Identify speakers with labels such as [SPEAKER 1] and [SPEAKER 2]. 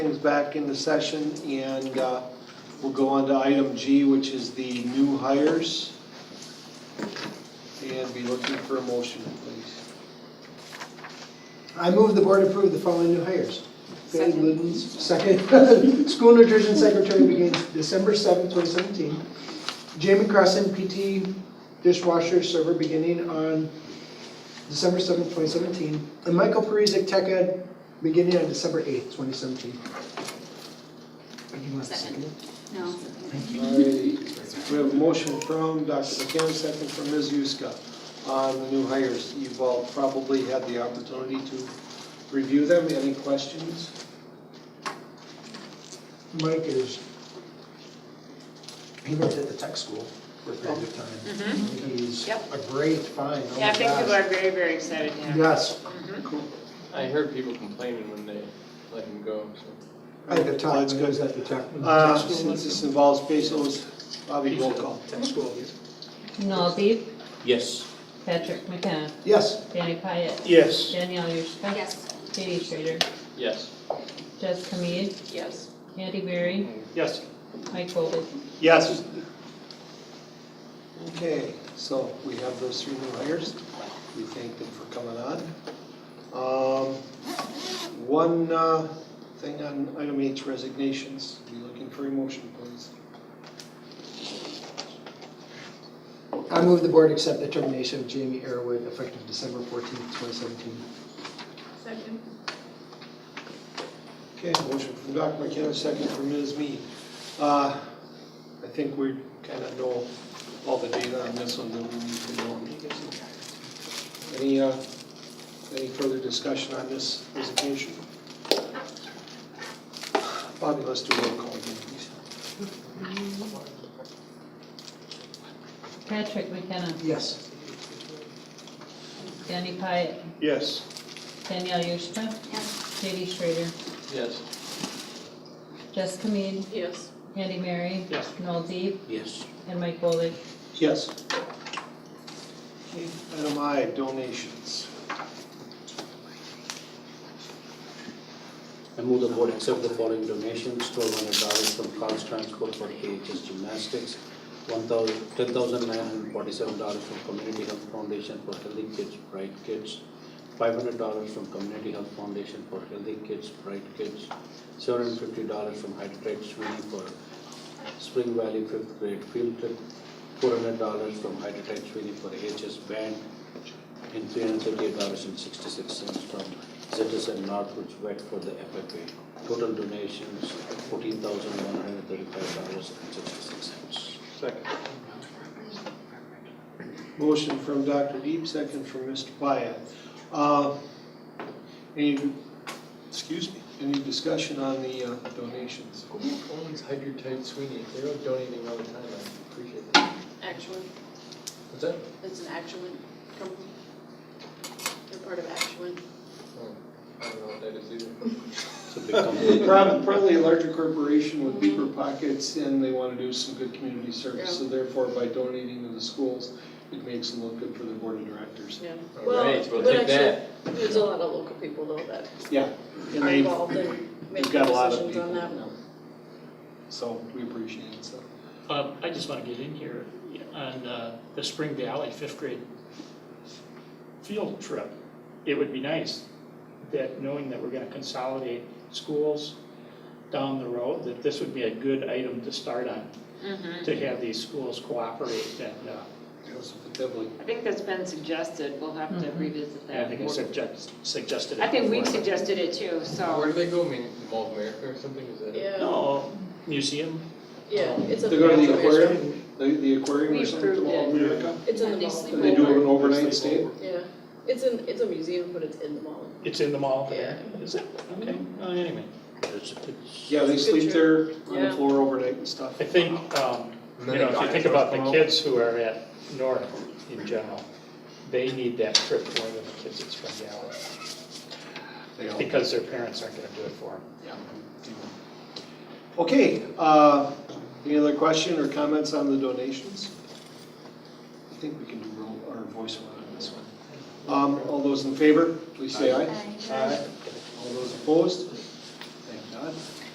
[SPEAKER 1] back into session and uh, we'll go on to item G, which is the new hires. And be looking for a motion, please.
[SPEAKER 2] I move the board approve the following new hires. Betty
[SPEAKER 3] Second.
[SPEAKER 2] Glidden's second, school nutrition secretary begins December seventh, twenty seventeen. Jamie Crossan, PT dishwasher server beginning on December seventh, twenty seventeen. And Michael Perisic, tech ed, beginning on December eighth, twenty seventeen.
[SPEAKER 3] Second. No.
[SPEAKER 1] Alrighty, we have a motion from Dr. McCann, second from Ms. Huska on the new hires. You've all probably had the opportunity to review them. Any questions?
[SPEAKER 2] Mike is, he worked at the tech school for a period of time. He's
[SPEAKER 3] Yep.
[SPEAKER 2] a great find, oh my
[SPEAKER 4] Oh. Mm-hmm. Yeah, I think
[SPEAKER 2] gosh.
[SPEAKER 4] people are very, very excited to have him.
[SPEAKER 2] Yes.
[SPEAKER 5] I heard people complaining when they let him go, so.
[SPEAKER 2] At the time,
[SPEAKER 1] That's
[SPEAKER 2] it was
[SPEAKER 1] good.
[SPEAKER 2] at the time.
[SPEAKER 1] Uh, Since this involves pesos, Bobby, roll call.
[SPEAKER 6] Nolby,
[SPEAKER 5] Yes.
[SPEAKER 6] Patrick McKenna,
[SPEAKER 2] Yes,
[SPEAKER 6] Danny Pyatt,
[SPEAKER 1] Yes.
[SPEAKER 6] Danielle Yurzka.
[SPEAKER 3] Yes.
[SPEAKER 6] Katie Schrader,
[SPEAKER 5] Yes.
[SPEAKER 6] Jessica Mead,
[SPEAKER 4] Yes.
[SPEAKER 6] Andy Berry,
[SPEAKER 1] Yes.
[SPEAKER 6] Mike Bolick.
[SPEAKER 1] Yes. Okay, so we have those three new hires. We thank them for coming on. Um, One uh, thing on item H resignations. Be looking for a motion, please.
[SPEAKER 2] I move the board accept the termination of Jamie Arrowood effective December fourteenth, twenty seventeen.
[SPEAKER 4] Second.
[SPEAKER 1] Okay, motion from Dr. McKenna, second from Ms. Mead. Uh, I think we kind of know all the data on this one that we need to know. Any, uh, any further discussion on this resignation? Bobby, let's do a roll call again, please.
[SPEAKER 6] Patrick McKenna,
[SPEAKER 2] Yes.
[SPEAKER 6] Danny Pyatt,
[SPEAKER 1] Yes.
[SPEAKER 6] Danielle Yurzka,
[SPEAKER 3] Yes.
[SPEAKER 6] Katie Schrader,
[SPEAKER 5] Yes.
[SPEAKER 6] Jessica Mead,
[SPEAKER 4] Yes.
[SPEAKER 6] Andy Berry,
[SPEAKER 1] Yes.
[SPEAKER 6] Nolby,
[SPEAKER 5] Yes.
[SPEAKER 6] and Mike Bolick.
[SPEAKER 1] Yes. Okay, Item I, donations.
[SPEAKER 7] I move the board accept the following donations, twelve hundred dollars from Carl's Transport for AHS Gymnastics, one thousand, ten thousand nine hundred forty-seven dollars from Community Health Foundation for Healthy Kids, Bright Kids, five hundred dollars from Community Health Foundation for Healthy Kids, Bright Kids, seven hundred fifty dollars from Hydrate Sweeney for Spring Valley fifth grade field trip, four hundred dollars from Hydrate Sweeney for AHS band, and three hundred thirty-eight dollars and sixty-six cents from Citizen Northwich Vet for the FFA. Total donations, fourteen thousand one hundred thirty-five dollars and sixty-six cents.
[SPEAKER 5] Second.
[SPEAKER 1] Motion from Dr. Deep, second from Mr. Pyatt. Uh, Any, excuse me, any discussion on the uh, donations?
[SPEAKER 5] Always hide your tight Sweeney, they're donating all the time, I appreciate that.
[SPEAKER 4] Actually,
[SPEAKER 5] What's that?
[SPEAKER 4] it's an actual company. They're part of actual.
[SPEAKER 5] Oh, I don't know what that is either.
[SPEAKER 7] It's a big company.
[SPEAKER 1] Prob- Probably a larger corporation with deeper pockets, and they want to do some good community service, so therefore by donating to the schools, it makes them look good for the board of directors.
[SPEAKER 4] Yeah.
[SPEAKER 5] All
[SPEAKER 4] Well,
[SPEAKER 5] right, we'll
[SPEAKER 4] but
[SPEAKER 5] take
[SPEAKER 4] actually,
[SPEAKER 5] that.
[SPEAKER 4] There's a lot of local people though that
[SPEAKER 1] Yeah, and
[SPEAKER 4] are
[SPEAKER 1] they've,
[SPEAKER 4] involved in
[SPEAKER 1] they've
[SPEAKER 4] making
[SPEAKER 1] got a lot of
[SPEAKER 4] decisions
[SPEAKER 1] people.
[SPEAKER 4] on that.
[SPEAKER 1] yeah. So we appreciate it, so.
[SPEAKER 8] Um, I just want to get in here on uh, the Spring Valley fifth grade field trip. It would be nice that, knowing that we're going to consolidate schools down the road, that this would be a good item to start on,
[SPEAKER 9] Mm-hmm.
[SPEAKER 8] to have these schools cooperate and, uh,
[SPEAKER 1] Joseph Tibbley.
[SPEAKER 9] I think that's been suggested, we'll have to revisit
[SPEAKER 8] and I
[SPEAKER 9] that.
[SPEAKER 8] think I suggest- suggested it.
[SPEAKER 9] I think we
[SPEAKER 8] before.
[SPEAKER 9] suggested it too,
[SPEAKER 5] Where
[SPEAKER 9] so,
[SPEAKER 5] do they go, I mean, Mall of America or something, is that? it?
[SPEAKER 4] Yeah,
[SPEAKER 8] No, museum,
[SPEAKER 4] yeah, it's a.
[SPEAKER 1] They go to the
[SPEAKER 4] it's a-
[SPEAKER 1] aquarium, the, the aquarium
[SPEAKER 9] We
[SPEAKER 1] or something, to
[SPEAKER 9] approved
[SPEAKER 1] Mall of
[SPEAKER 8] it.
[SPEAKER 1] America?
[SPEAKER 4] It's in the
[SPEAKER 9] And they
[SPEAKER 4] mall.
[SPEAKER 9] sleep
[SPEAKER 1] And they do an overnight
[SPEAKER 5] Sleepover.
[SPEAKER 1] stay?
[SPEAKER 4] Yeah, it's in, it's a museum, but it's in the mall.
[SPEAKER 8] it's in the mall
[SPEAKER 4] Yeah.
[SPEAKER 8] there, is it? Okay, well, anyway.
[SPEAKER 7] It's- it's-
[SPEAKER 1] Yeah, they sleep there on the
[SPEAKER 4] Yeah.
[SPEAKER 1] floor overnight and stuff.
[SPEAKER 8] I think, um,
[SPEAKER 5] And then
[SPEAKER 8] you know,
[SPEAKER 5] they
[SPEAKER 8] if you
[SPEAKER 5] buy
[SPEAKER 8] think
[SPEAKER 5] it.
[SPEAKER 8] about the kids who are at North in general, they need that trip more than the kids at Spring Valley.
[SPEAKER 1] They all-
[SPEAKER 8] Because their parents aren't gonna do it for them.
[SPEAKER 1] Okay, uh, any other question or comments on the donations? I think we can do roll, or voice around on this one. Um, all those in favor, please say aye. All those opposed? Thank God.